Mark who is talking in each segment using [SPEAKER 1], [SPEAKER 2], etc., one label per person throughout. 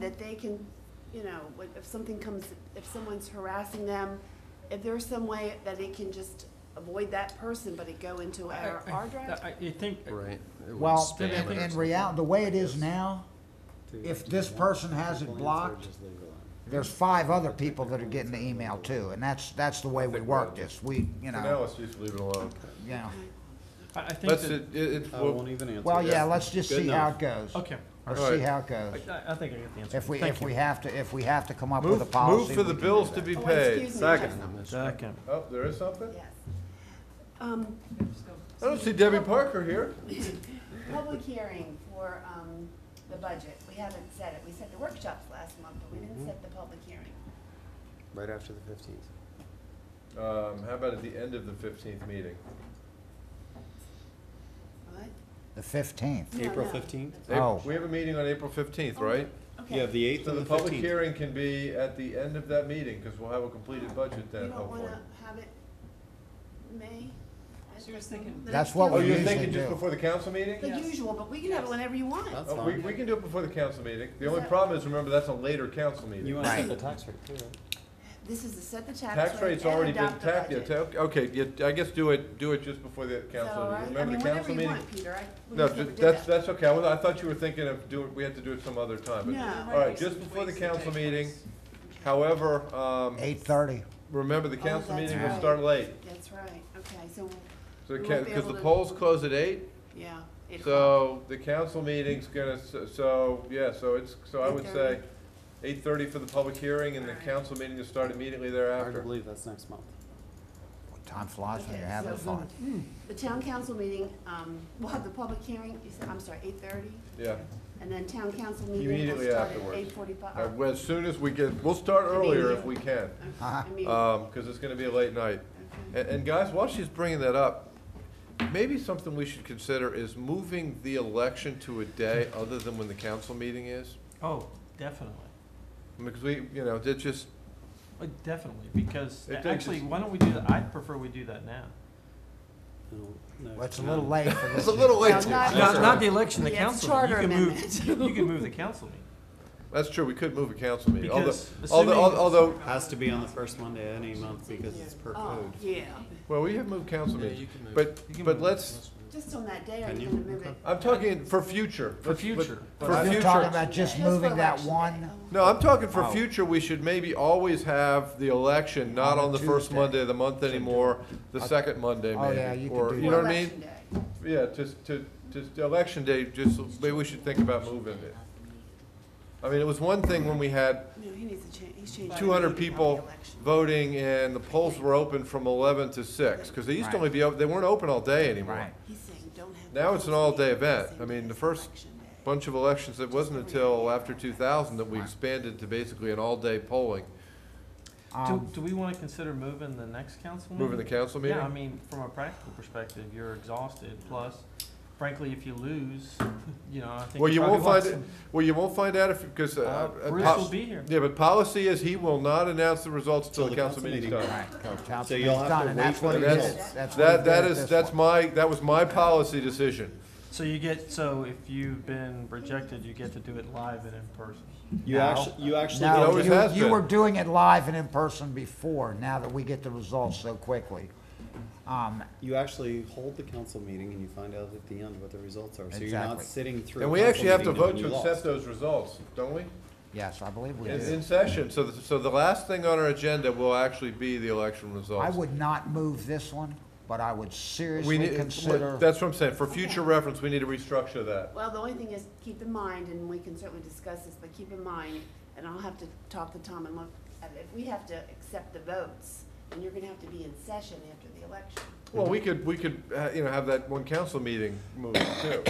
[SPEAKER 1] that they can, you know, what- if something comes, if someone's harassing them, if there's some way that it can just avoid that person, but it go into our,
[SPEAKER 2] I- I-
[SPEAKER 1] our drive?
[SPEAKER 2] I, I think,
[SPEAKER 3] Right. it would
[SPEAKER 4] Well,
[SPEAKER 3] span
[SPEAKER 4] in,
[SPEAKER 3] it.
[SPEAKER 4] in reality, the way it is now, if this person has it blocked, there's five other people that are getting the email too, and that's, that's the way we work this. We, you
[SPEAKER 5] For now,
[SPEAKER 4] know,
[SPEAKER 5] let's just leave it alone.
[SPEAKER 4] you know.
[SPEAKER 2] I, I think
[SPEAKER 5] Let's,
[SPEAKER 2] that,
[SPEAKER 5] it, it, it-
[SPEAKER 6] I
[SPEAKER 5] we'll-
[SPEAKER 6] won't even answer.
[SPEAKER 4] Well, yeah,
[SPEAKER 6] that.
[SPEAKER 4] let's just
[SPEAKER 6] Good
[SPEAKER 4] see how
[SPEAKER 6] enough.
[SPEAKER 4] it goes.
[SPEAKER 2] okay,
[SPEAKER 4] Let's
[SPEAKER 5] All
[SPEAKER 4] see
[SPEAKER 5] right.
[SPEAKER 4] how it goes.
[SPEAKER 2] I, I think I get the answer.
[SPEAKER 4] If we,
[SPEAKER 2] Thank
[SPEAKER 4] if
[SPEAKER 2] you.
[SPEAKER 4] we have to, if we have to come up with a
[SPEAKER 5] move,
[SPEAKER 4] policy.
[SPEAKER 5] move for the
[SPEAKER 4] we can do
[SPEAKER 5] bills to
[SPEAKER 4] that.
[SPEAKER 5] be
[SPEAKER 1] Oh,
[SPEAKER 5] paid.
[SPEAKER 1] excuse me, yes.
[SPEAKER 5] Second.
[SPEAKER 2] Second.
[SPEAKER 5] Oh, there is something?
[SPEAKER 1] Yes. Um,
[SPEAKER 5] I don't see Debbie Parker here.
[SPEAKER 1] public hearing for, um, the budget, we haven't set it, we set the workshops last month, but we
[SPEAKER 5] Mm-hmm.
[SPEAKER 1] didn't set the public hearing.
[SPEAKER 3] Right after the fifteenth.
[SPEAKER 5] Um, how about at the end of the fifteenth meeting?
[SPEAKER 1] What?
[SPEAKER 4] The fifteenth.
[SPEAKER 1] No,
[SPEAKER 6] April
[SPEAKER 1] no.
[SPEAKER 6] 15th?
[SPEAKER 4] Oh.
[SPEAKER 5] April- We have a meeting on April fifteenth, right?
[SPEAKER 1] Okay.
[SPEAKER 6] Yeah, the eighth
[SPEAKER 5] So
[SPEAKER 6] and
[SPEAKER 5] the
[SPEAKER 6] the
[SPEAKER 5] public
[SPEAKER 6] fifteenth.
[SPEAKER 5] hearing can be at the end of that meeting, because we'll have a completed budget
[SPEAKER 1] You
[SPEAKER 5] then,
[SPEAKER 1] don't
[SPEAKER 5] hopefully.
[SPEAKER 1] wanna have it May?
[SPEAKER 7] So you're thinking-
[SPEAKER 1] The
[SPEAKER 4] That's
[SPEAKER 1] next
[SPEAKER 4] what
[SPEAKER 5] Oh,
[SPEAKER 1] council-
[SPEAKER 4] we
[SPEAKER 5] you're
[SPEAKER 4] usually
[SPEAKER 5] thinking just
[SPEAKER 4] do.
[SPEAKER 5] before the council meeting?
[SPEAKER 1] The usual, but we can have it whenever you want.
[SPEAKER 7] That's
[SPEAKER 5] Oh, we, we
[SPEAKER 7] fine.
[SPEAKER 5] can do it before the council meeting. The
[SPEAKER 1] Is
[SPEAKER 5] only
[SPEAKER 1] that-
[SPEAKER 5] problem is, remember, that's a later council
[SPEAKER 7] You
[SPEAKER 5] meeting.
[SPEAKER 7] want to
[SPEAKER 4] Right.
[SPEAKER 7] set the tax rate too, right?
[SPEAKER 1] This is to set the
[SPEAKER 5] Tax
[SPEAKER 1] tax rate
[SPEAKER 5] rate's
[SPEAKER 1] and
[SPEAKER 5] already been
[SPEAKER 1] adopt the
[SPEAKER 5] tapped, yeah,
[SPEAKER 1] budget.
[SPEAKER 5] ta- okay, yeah, I guess do it, do it just before the
[SPEAKER 1] Is that all
[SPEAKER 5] council,
[SPEAKER 1] right? I
[SPEAKER 5] remember
[SPEAKER 1] mean,
[SPEAKER 5] the
[SPEAKER 1] whenever
[SPEAKER 5] council
[SPEAKER 1] you
[SPEAKER 5] meeting?
[SPEAKER 1] want, Peter, I, we
[SPEAKER 5] No,
[SPEAKER 1] just never
[SPEAKER 5] ju-
[SPEAKER 1] did
[SPEAKER 5] that's,
[SPEAKER 1] that.
[SPEAKER 5] that's okay, I was- I thought you were thinking of doing, we had to do it some other time, but,
[SPEAKER 1] No.
[SPEAKER 5] all right, just before the council meeting. However, um,
[SPEAKER 4] Eight thirty.
[SPEAKER 5] remember, the
[SPEAKER 1] Oh,
[SPEAKER 5] council
[SPEAKER 1] that's
[SPEAKER 5] meeting will
[SPEAKER 1] right.
[SPEAKER 5] start late.
[SPEAKER 1] That's right, okay, so,
[SPEAKER 5] So,
[SPEAKER 1] We won't be
[SPEAKER 5] because
[SPEAKER 1] able
[SPEAKER 5] the
[SPEAKER 1] to-
[SPEAKER 5] polls close at eight,
[SPEAKER 1] yeah. eight o'clock.
[SPEAKER 5] so the council meeting's gonna, s- so, yeah, so it's, so I would say
[SPEAKER 1] 8:30.
[SPEAKER 5] eight thirty for the public hearing and the
[SPEAKER 1] Alright.
[SPEAKER 5] council meeting will start immediately
[SPEAKER 7] Hard to
[SPEAKER 5] thereafter.
[SPEAKER 7] believe that's next month.
[SPEAKER 4] Time flies when
[SPEAKER 1] Okay,
[SPEAKER 4] you're having
[SPEAKER 1] so-
[SPEAKER 4] fun.
[SPEAKER 1] The town council meeting, um, we'll have the public hearing, you said, I'm sorry, eight thirty?
[SPEAKER 5] Yeah,
[SPEAKER 1] And then town council meeting will
[SPEAKER 5] Immediately
[SPEAKER 1] start at
[SPEAKER 5] afterwards.
[SPEAKER 1] eight
[SPEAKER 5] Uh,
[SPEAKER 1] forty-five.
[SPEAKER 5] well, as soon as we get, we'll start earlier if we can,
[SPEAKER 4] Uh-huh.
[SPEAKER 5] um, because it's gonna be a late night. And, and guys, while she's bringing that up, maybe something we should consider is moving the election to a day other than when the council meeting is.
[SPEAKER 2] Oh, definitely,
[SPEAKER 5] Because we, you know, it just,
[SPEAKER 2] Uh, definitely, because,
[SPEAKER 5] It takes
[SPEAKER 2] actually,
[SPEAKER 5] us-
[SPEAKER 2] why don't we do that, I prefer we do that now.
[SPEAKER 7] I don't know.
[SPEAKER 4] Well, it's a little late for this.
[SPEAKER 5] it's a little late.
[SPEAKER 1] Not
[SPEAKER 2] the election,
[SPEAKER 1] the Yeah, it's council. charter
[SPEAKER 2] You can move-
[SPEAKER 1] amendment.
[SPEAKER 2] You can move the council meeting,
[SPEAKER 5] That's true, we could move a council meeting, although,
[SPEAKER 2] because
[SPEAKER 5] although,
[SPEAKER 2] assuming,
[SPEAKER 5] although,
[SPEAKER 7] Has to be on the first Monday of any month because it's per
[SPEAKER 1] Oh,
[SPEAKER 7] code.
[SPEAKER 1] yeah,
[SPEAKER 5] well, we have moved council
[SPEAKER 3] Yeah, you
[SPEAKER 5] meetings,
[SPEAKER 3] can move.
[SPEAKER 5] but,
[SPEAKER 2] You can
[SPEAKER 5] but
[SPEAKER 2] move
[SPEAKER 5] let's,
[SPEAKER 1] just on that day, are
[SPEAKER 7] Can
[SPEAKER 1] you
[SPEAKER 7] you?
[SPEAKER 1] gonna move it?
[SPEAKER 5] I'm talking for future.
[SPEAKER 2] For
[SPEAKER 5] Let's- let-
[SPEAKER 2] future.
[SPEAKER 5] For
[SPEAKER 4] We're
[SPEAKER 5] future.
[SPEAKER 4] just talking about just
[SPEAKER 1] Just for
[SPEAKER 4] moving that
[SPEAKER 1] election
[SPEAKER 4] one.
[SPEAKER 1] day. Oh.
[SPEAKER 5] No, I'm talking for
[SPEAKER 4] Oh.
[SPEAKER 5] future, we should maybe always have the election, not
[SPEAKER 4] On a
[SPEAKER 5] on the first
[SPEAKER 4] Tuesday.
[SPEAKER 5] Monday of the month anymore, the second Monday
[SPEAKER 4] Oh, yeah,
[SPEAKER 5] maybe,
[SPEAKER 4] you could
[SPEAKER 5] or,
[SPEAKER 4] do
[SPEAKER 5] you know
[SPEAKER 1] Or
[SPEAKER 5] what I mean?
[SPEAKER 1] election day.
[SPEAKER 5] Yeah, just to, just the election day, just, maybe we should think about moving it. I mean, it was one thing when we had
[SPEAKER 1] No, he needs to change, he's changing.
[SPEAKER 5] two hundred
[SPEAKER 1] the meeting on the
[SPEAKER 5] people
[SPEAKER 1] election.
[SPEAKER 5] voting and the polls were open from eleven to six, because they used to only be, open they weren't open all day anymore.
[SPEAKER 4] Right.
[SPEAKER 1] He's saying, don't have.
[SPEAKER 5] Now it's an all-day event.
[SPEAKER 1] Same
[SPEAKER 5] I mean,
[SPEAKER 1] day
[SPEAKER 5] the
[SPEAKER 1] as
[SPEAKER 5] first
[SPEAKER 1] election day.
[SPEAKER 5] Bunch of elections, it wasn't until after two thousand that we expanded to basically an all-day polling,
[SPEAKER 2] do,
[SPEAKER 4] Um,
[SPEAKER 2] do we wanna consider moving the next council meeting?
[SPEAKER 5] moving
[SPEAKER 4] Mm-hmm.
[SPEAKER 5] the council meeting.
[SPEAKER 2] Yeah, I mean, from a practical perspective, you're exhausted, plus, frankly, if you lose, you know, I think.
[SPEAKER 5] Well, you
[SPEAKER 2] probably
[SPEAKER 5] won't
[SPEAKER 2] want
[SPEAKER 5] find it,
[SPEAKER 2] some-
[SPEAKER 5] well, you won't find out if, because, uh,
[SPEAKER 2] Uh,
[SPEAKER 5] uh,
[SPEAKER 2] Bruce
[SPEAKER 5] pol-
[SPEAKER 2] will be here.
[SPEAKER 5] yeah, but policy is he will not announce the results till the council meeting's done.
[SPEAKER 4] Right, so council
[SPEAKER 7] So you'll
[SPEAKER 4] meeting's
[SPEAKER 7] have
[SPEAKER 4] done,
[SPEAKER 7] to
[SPEAKER 4] and
[SPEAKER 7] wait
[SPEAKER 4] that's
[SPEAKER 7] for
[SPEAKER 4] what
[SPEAKER 5] the
[SPEAKER 4] it is.
[SPEAKER 5] results.
[SPEAKER 4] That's what we
[SPEAKER 5] That, that
[SPEAKER 4] did
[SPEAKER 5] is,
[SPEAKER 4] this
[SPEAKER 5] that's
[SPEAKER 4] one.
[SPEAKER 5] my, that was my policy decision.
[SPEAKER 2] So you get, so if you've been rejected, you get to do it live and in person.
[SPEAKER 7] You
[SPEAKER 2] Now-
[SPEAKER 7] actually, you actually.
[SPEAKER 5] It
[SPEAKER 4] No,
[SPEAKER 5] always
[SPEAKER 4] you,
[SPEAKER 5] has
[SPEAKER 4] you
[SPEAKER 5] been.
[SPEAKER 4] were doing it live and in person before, now that we get the results so quickly. Um,
[SPEAKER 7] You actually hold the council meeting and you find out at the end what the results are, so you're not
[SPEAKER 4] Exactly.
[SPEAKER 7] sitting through.
[SPEAKER 5] And
[SPEAKER 7] a
[SPEAKER 5] we
[SPEAKER 7] council
[SPEAKER 5] actually have to
[SPEAKER 7] meeting knowing
[SPEAKER 5] vote
[SPEAKER 7] you
[SPEAKER 5] to accept
[SPEAKER 7] lost.
[SPEAKER 5] those results, don't we?
[SPEAKER 4] yes, I believe we
[SPEAKER 5] In,
[SPEAKER 4] do.
[SPEAKER 5] in session, so, the- so the last thing on our agenda will actually be the election
[SPEAKER 4] I
[SPEAKER 5] results.
[SPEAKER 4] would not move this one, but I would
[SPEAKER 5] We
[SPEAKER 4] seriously
[SPEAKER 5] need,
[SPEAKER 4] consider,
[SPEAKER 5] that's what I'm saying, for future reference, we need to restructure that.
[SPEAKER 1] Well, the only thing is, keep in mind, and we can certainly discuss this, but keep in mind, and I'll have to talk to Tom and look, at it, if we have to accept the votes, then you're gonna have to be in session after the election.
[SPEAKER 5] Well, we could, we could, uh, you know, have that one council meeting move too.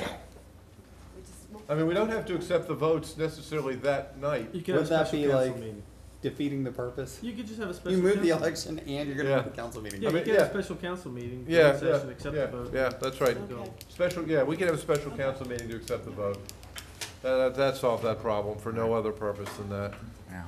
[SPEAKER 1] We just- we'll-
[SPEAKER 5] I mean, we don't have to accept the votes necessarily that night.
[SPEAKER 2] You could have
[SPEAKER 7] Would
[SPEAKER 2] a
[SPEAKER 7] that
[SPEAKER 2] special
[SPEAKER 7] be
[SPEAKER 2] council
[SPEAKER 7] like
[SPEAKER 2] meeting.
[SPEAKER 7] defeating the purpose?
[SPEAKER 2] You could just have a special.
[SPEAKER 7] You move the
[SPEAKER 2] council-
[SPEAKER 7] election and you're gonna
[SPEAKER 5] Yeah.
[SPEAKER 7] move the council meeting.
[SPEAKER 2] Yeah,
[SPEAKER 5] I
[SPEAKER 2] you
[SPEAKER 5] mean,
[SPEAKER 2] could have
[SPEAKER 5] yeah.
[SPEAKER 2] a special council meeting, go
[SPEAKER 5] Yeah,
[SPEAKER 2] in
[SPEAKER 5] yeah,
[SPEAKER 2] session, accept the
[SPEAKER 5] yeah,
[SPEAKER 2] vote.
[SPEAKER 5] yeah, that's right.
[SPEAKER 2] go.
[SPEAKER 1] Okay.
[SPEAKER 5] Special, yeah, we can have a special council meeting to accept the vote. That, that solved that problem for no other purpose than that.
[SPEAKER 4] yeah.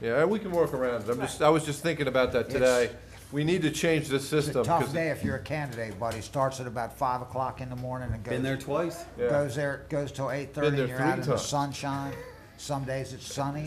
[SPEAKER 5] Yeah, and we can work around it. I'm just, I was just thinking about that today. We need to change this
[SPEAKER 4] It's a
[SPEAKER 5] system.
[SPEAKER 4] tough
[SPEAKER 5] 'cause-
[SPEAKER 4] day if you're a candidate, buddy, starts at about five o'clock in the morning and
[SPEAKER 7] Been there
[SPEAKER 4] goes,
[SPEAKER 7] twice.
[SPEAKER 5] yeah.
[SPEAKER 4] goes there, goes till eight thirty,
[SPEAKER 5] there
[SPEAKER 4] and you're
[SPEAKER 5] three
[SPEAKER 4] out in the
[SPEAKER 5] times.
[SPEAKER 4] sunshine. Some days it's sunny,